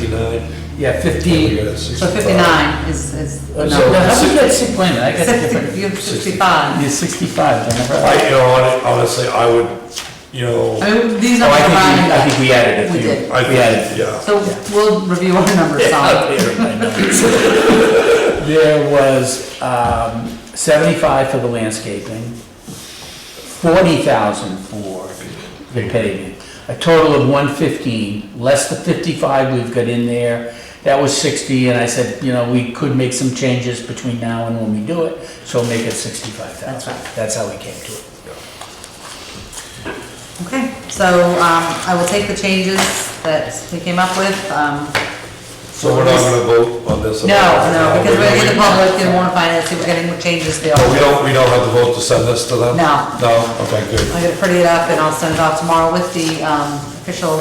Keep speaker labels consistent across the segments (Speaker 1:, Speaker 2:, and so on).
Speaker 1: 59?
Speaker 2: Yeah,
Speaker 1: We
Speaker 2: 50,
Speaker 1: got it at
Speaker 3: So
Speaker 1: 65.
Speaker 3: 59 is, is the
Speaker 2: no,
Speaker 1: So-
Speaker 2: no,
Speaker 3: number.
Speaker 2: how did you get, si- wait a minute, I got a
Speaker 3: 60,
Speaker 2: different,
Speaker 3: you have 65.
Speaker 2: you're 65, I
Speaker 1: I,
Speaker 2: never.
Speaker 1: you know, hon- honestly, I would, you know,
Speaker 3: I mean, these
Speaker 2: Oh, I think,
Speaker 3: numbers are
Speaker 2: we- I
Speaker 3: rounded
Speaker 2: think we added a
Speaker 3: We
Speaker 2: few.
Speaker 3: did.
Speaker 1: I
Speaker 2: We added.
Speaker 1: think, yeah.
Speaker 3: So we'll review our numbers on.
Speaker 2: There was, um, seventy-five for the landscaping, forty thousand for the paving. A total of one fifteen, less the fifty-five we've got in there. That was sixty, and I said, you know, we could make some changes between now and when we do it, so make it sixty-five
Speaker 3: That's
Speaker 2: thousand.
Speaker 3: right.
Speaker 2: That's how we came to it.
Speaker 3: Okay, so um, I will take the changes that we came up with. um,
Speaker 1: So we're not gonna vote on this?
Speaker 3: No, no, because we're
Speaker 1: We-
Speaker 3: in the public, they want to find out, see if we're getting changes there.
Speaker 1: Oh, we don't, we don't have to vote to send this to them?
Speaker 3: No.
Speaker 1: No, okay, good.
Speaker 3: I'm gonna pretty it up and I'll send it off tomorrow with the um, official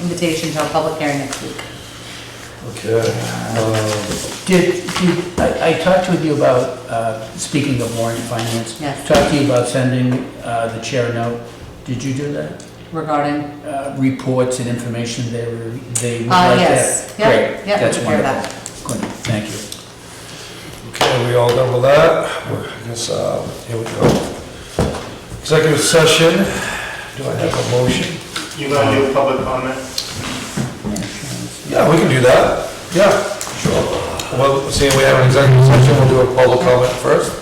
Speaker 3: invitation to a public hearing next week.
Speaker 1: Okay. um,
Speaker 2: Did, did, I, I talked with you about, uh, speaking of warrant finance.
Speaker 3: Yes.
Speaker 2: Talked to you about sending, uh, the chair a note. Did you do that?
Speaker 3: regarding,
Speaker 2: Uh, reports and information they were, they would
Speaker 3: Uh,
Speaker 2: like to
Speaker 3: yes.
Speaker 2: have?
Speaker 3: Yep,
Speaker 2: Great,
Speaker 3: yep,
Speaker 2: that's
Speaker 3: we can hear that.
Speaker 2: wonderful. Good, thank you.
Speaker 1: Okay, we all done with that? I guess, uh, here we go. Executive session, do I have a motion?
Speaker 4: You gonna do public comment?
Speaker 1: Yeah, we can do that, yeah, sure. Well, seeing we have an executive session, we'll do a public comment first.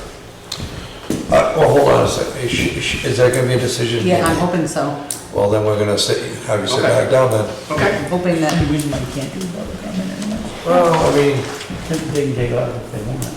Speaker 1: Uh, well, hold on a second, is, she- is she- is that gonna be a decision?
Speaker 3: yeah, I'm hoping so.
Speaker 1: Well, then we're gonna sit, have you sit
Speaker 4: Okay.
Speaker 1: back down then.
Speaker 4: Okay.
Speaker 3: I'm hoping that,
Speaker 2: The reason why we can't do public comment anymore,
Speaker 1: Well, I mean,
Speaker 2: they can take off if they want.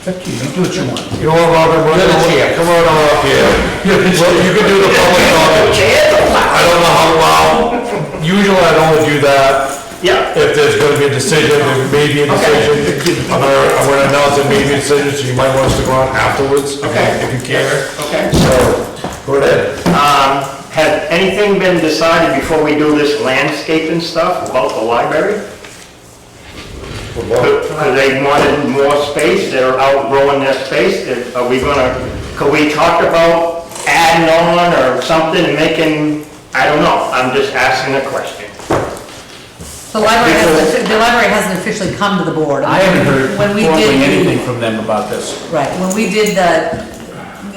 Speaker 2: It's up to you, you do what you want.
Speaker 1: you know what, Robin, we're gonna, come on up here. Well, you can do the public comment. I don't know how loud, usually I don't do that,
Speaker 4: Yeah.
Speaker 1: if there's gonna be a decision, there may be a decision. I'm gonna, I'm gonna announce there may be a decision, so you might want us to go on afterwards.
Speaker 4: Okay.
Speaker 1: If you care.
Speaker 4: Okay.
Speaker 1: So, go ahead.
Speaker 4: Um, has anything been decided before we do this landscaping stuff about the library?
Speaker 1: Well,
Speaker 4: Because They wanted more space, they're outgrowing their space, that- are we gonna, could we talk about adding on or something, and making, I don't know, I'm just asking a question.
Speaker 3: the library hasn't, the library hasn't officially come to the board.
Speaker 2: I haven't heard
Speaker 3: When we
Speaker 2: formally
Speaker 3: did the-
Speaker 2: anything from them about this.
Speaker 3: Right, when we did the,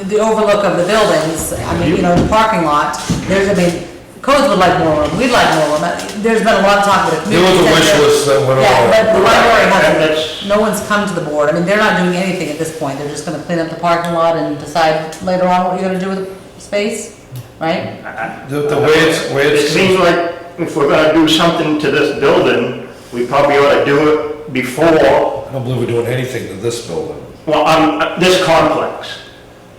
Speaker 3: the overlook of the buildings, I mean, you know, the parking lot, there's, I mean, codes would like more room, we'd like more room. There's been a lot of talk with the
Speaker 1: There was
Speaker 3: community.
Speaker 1: a wish
Speaker 3: center.
Speaker 1: list that went along.
Speaker 3: Yeah, but the library
Speaker 4: And that's-
Speaker 3: hasn't, no one's come to the board. I mean, they're not doing anything at this point. They're just gonna clean up the parking lot and decide later on what you're gonna do with the space, right?
Speaker 1: The, the way it's, way
Speaker 4: It
Speaker 1: it's,
Speaker 4: seems like if we're gonna do something to this building, we probably ought to do it before
Speaker 1: I don't believe we're doing anything to this building.
Speaker 4: Well, um, this complex,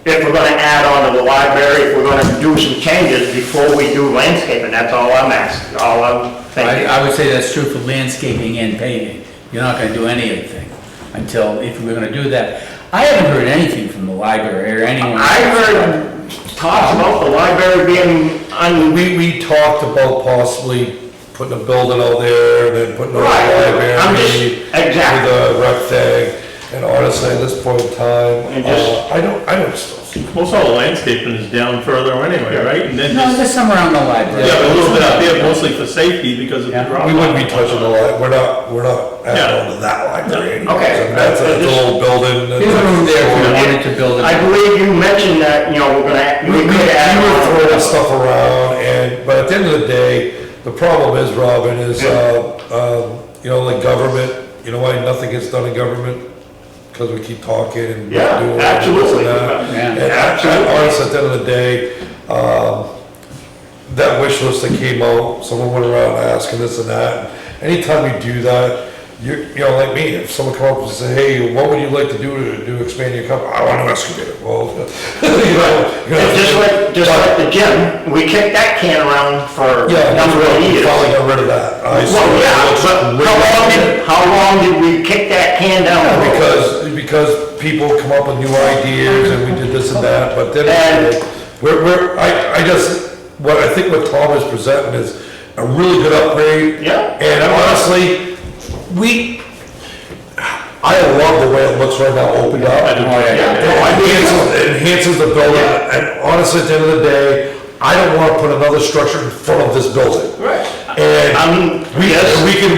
Speaker 4: if we're gonna add on to the library, if we're gonna do some changes before we do landscaping, that's all I'm asking, all I'm
Speaker 2: I,
Speaker 4: thinking.
Speaker 2: I would say that's true for landscaping and paving. You're not gonna do anything until, if we're gonna do that. I haven't heard anything from the library or anyone.
Speaker 4: I heard talks about the library being un,
Speaker 1: We, we talked about possibly putting a building out there and then putting a
Speaker 4: Right,
Speaker 1: library.
Speaker 4: I'm just- exactly.
Speaker 1: With a rec thing, and honestly, at this point in time,
Speaker 4: And just-
Speaker 1: uh, I don't, I don't still
Speaker 5: Most all the landscaping is down further anyway, right? And then
Speaker 2: No,
Speaker 5: just,
Speaker 2: there's some around the library.
Speaker 5: yeah, a little bit up there mostly for safety because of the
Speaker 2: Yeah.
Speaker 5: drop.
Speaker 1: We wouldn't be touching the li, we're not, we're not
Speaker 5: Yeah.
Speaker 1: adding on to that library anymore.
Speaker 4: Okay.
Speaker 1: So That's a little building. and-
Speaker 2: There's room there if we wanted to build
Speaker 4: I
Speaker 2: it.
Speaker 4: believe you mentioned that, you know, we're gonna,
Speaker 1: We, we
Speaker 4: we could add
Speaker 1: were
Speaker 4: on.
Speaker 1: throwing stuff around and, but at the end of the day, the problem is, Robin, is, uh, um, you know, like government, you know why nothing gets done in government? Because we keep talking and doing.
Speaker 4: Yeah,
Speaker 1: and this and
Speaker 4: absolutely.
Speaker 1: that.
Speaker 2: Yeah.
Speaker 1: And actually, honestly, at the end of the day, um, that wish list that came out, someone went around asking this and that. Anytime you do that, you, you know, like me, if someone come up and say, hey, what would you like to do to, to expand your company? I want an excavator. Well, you know. you know,
Speaker 4: It's Just like, just like the gym, we kicked that can around for
Speaker 1: Yeah,
Speaker 4: a
Speaker 1: that's
Speaker 4: number
Speaker 1: why
Speaker 4: of
Speaker 1: we
Speaker 4: years.
Speaker 1: finally got rid of that. I
Speaker 4: Well,
Speaker 1: swear,
Speaker 4: yeah,
Speaker 1: it's
Speaker 4: but how long
Speaker 1: ridiculous.
Speaker 4: did, how long did we kick that can down? the road?
Speaker 1: Because, because people come up with new ideas and we did this and that, but
Speaker 4: And-
Speaker 1: then, we're, we're, I, I just, what I think what Tom is presenting is a really good upgrade.
Speaker 4: Yeah.
Speaker 1: And honestly, we, I love the way it looks right now, opened up.
Speaker 5: I do, yeah, yeah,
Speaker 1: It enhances- Enhances the building, and honestly, at the end of the day, I don't wanna put another structure in front of this building.
Speaker 4: Right.
Speaker 1: And
Speaker 4: I'm,
Speaker 1: we,
Speaker 4: yes.
Speaker 1: we can